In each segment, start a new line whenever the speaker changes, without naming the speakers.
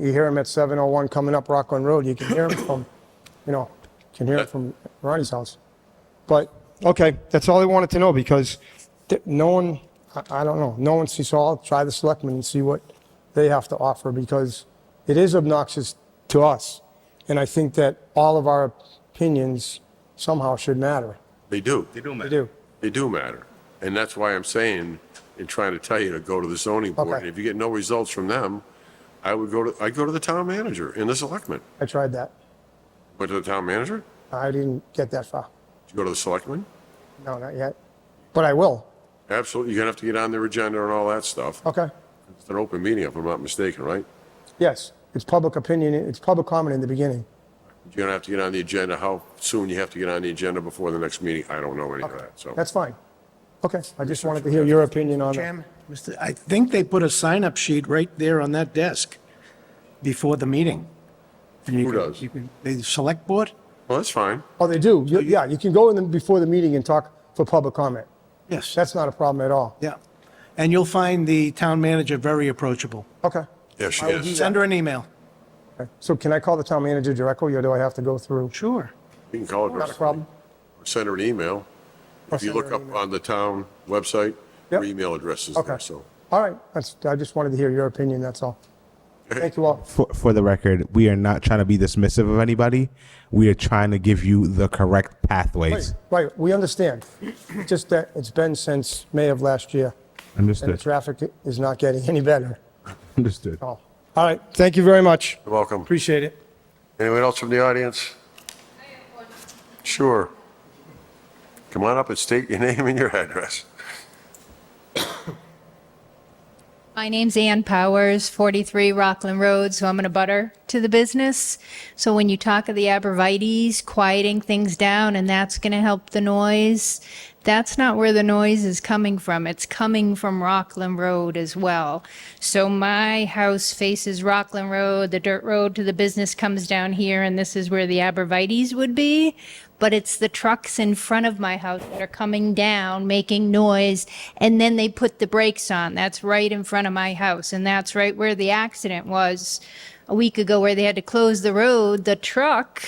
You hear him at 701 coming up Rockland Road, you can hear him from, you know, can hear him from Ronnie's house. But, okay, that's all I wanted to know because th- no one, I, I don't know, no one sees, so I'll try the selectmen and see what they have to offer because it is obnoxious to us. And I think that all of our opinions somehow should matter.
They do.
They do,
They
man.
do.
They do matter. And that's why I'm saying and trying to tell you to go to the zoning
Okay.
board. And if you get no results from them, I would go to, I'd go to the town manager and the selectmen.
I tried that.
But to the town manager?
I didn't get that far.
Did you go to the selectmen?
No, not yet. But I will.
Absolutely. You're gonna have to get on their agenda and all that stuff.
Okay.
It's an open meeting, if I'm not mistaken, right?
Yes, it's public opinion, it's public comment in the beginning.
You're gonna have to get on the agenda. How soon you have to get on the agenda before the next meeting? I don't know any of that, so.
That's fine. Okay, I just wanted to hear your opinion on that.
Chairman, Mr. I think they put a sign-up sheet right there on that desk before the meeting. And you
Who
can-
does?
you can- The select board?
Well, that's fine.
Oh, they do? You- Yeah, you can go in the- before the meeting and talk for public comment.
Yes,
That's not a problem at all.
yeah. And you'll find the town manager very approachable.
Okay.
Yeah, she is.
Send her an email.
So can I call the town manager directly, or do I have to go through?
Sure.
You can call her.
Not a problem.
Send her an email. If you
send her
look
an
up on the town website,
Yep.
her email address is
Okay.
there, so.
All right, that's, I just wanted to hear your opinion, that's all. Thank you all.
for, for the record, we are not trying to be dismissive of anybody. We are trying to give you the correct pathways.
Right, we understand. Just that it's been since May of last year, and the
Understood.
traffic is not getting any better.
Understood.
All right, thank you very much.
You're welcome.
Appreciate it.
Anyone else from the audience? Sure. Come on up and state your name and your address.
My name's Ann Powers, 43 Rockland Road, so I'm in a butter to the business. So when you talk of the abrevieties, quieting things down, and that's going to help the noise, that's not where the noise is coming from. It's coming from Rockland Road as well. So my house faces Rockland Road, the dirt road to the business comes down here, and this is where the abrevieties would be but it's the trucks in front of my house that are coming down, making noise, and then they put the brakes on. That's right in front of my house, and that's right where the accident was a week ago, where they had to close the road. The truck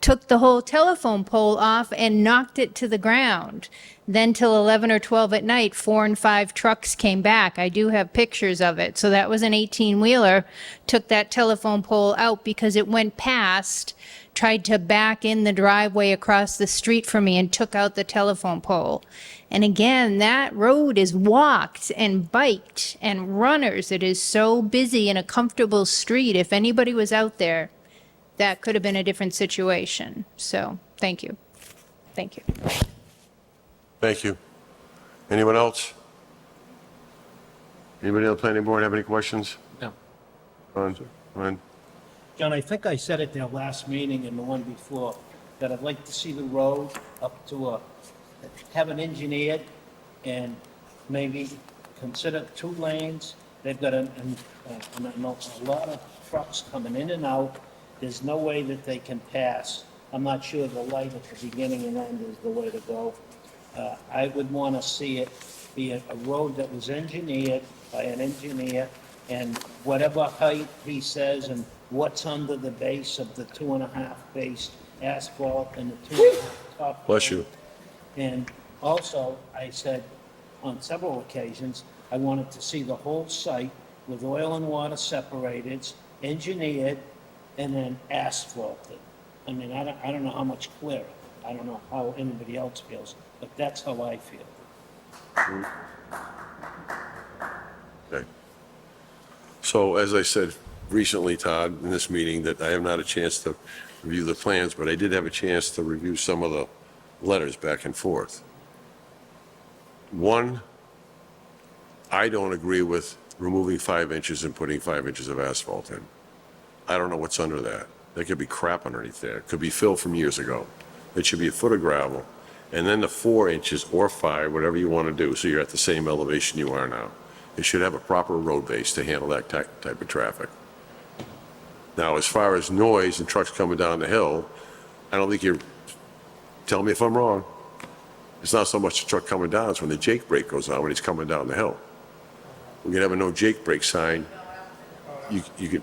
took the whole telephone pole off and knocked it to the ground. Then till 11 or 12 at night, four and five trucks came back. I do have pictures of it. So that was an 18-wheeler, took that telephone pole out because it went past tried to back in the driveway across the street from me and took out the telephone pole. And again, that road is walked and biked and runners. It is so busy and a comfortable street. If anybody was out there, that could have been a different situation. So, thank you. Thank you.
Thank you. Anyone else? Anybody on the planning board have any questions?
No.
Ron, Ron?
John, I think I said at their last meeting and the one before, that I'd like to see the road up to a, have it engineered and maybe consider two lanes. They've got an, an, uh, an- a lot of trucks coming in and out. There's no way that they can pass. I'm not sure the light at the beginning and end is the way to go. Uh, I would want to see it be a a road that was engineered by an engineer, and whatever height he says and what's under the base of the two and a half base asphalt and the two and a half top.
Bless you.
And also, I said on several occasions, I wanted to see the whole site with oil and water separated, engineered, and then asphalted. I mean, I don't, I don't know how much clearer. I don't know how anybody else feels, but that's how I feel.
Okay. So as I said recently, Todd, in this meeting, that I have not a chance to review the plans, but I did have a chance to review some of the letters back and forth. One, I don't agree with removing five inches and putting five inches of asphalt in. I don't know what's under that. There could be crap underneath there. It could be fill from years ago. It should be a foot of gravel. And then the four inches or five, whatever you want to do, so you're at the same elevation you are now. It should have a proper road base to handle that ty- type of traffic. Now, as far as noise and trucks coming down the hill, I don't think you're, tell me if I'm wrong. It's not so much the truck coming down, it's when the Jake brake goes on, when he's coming down the hill. We could have a no Jake brake sign. You, you could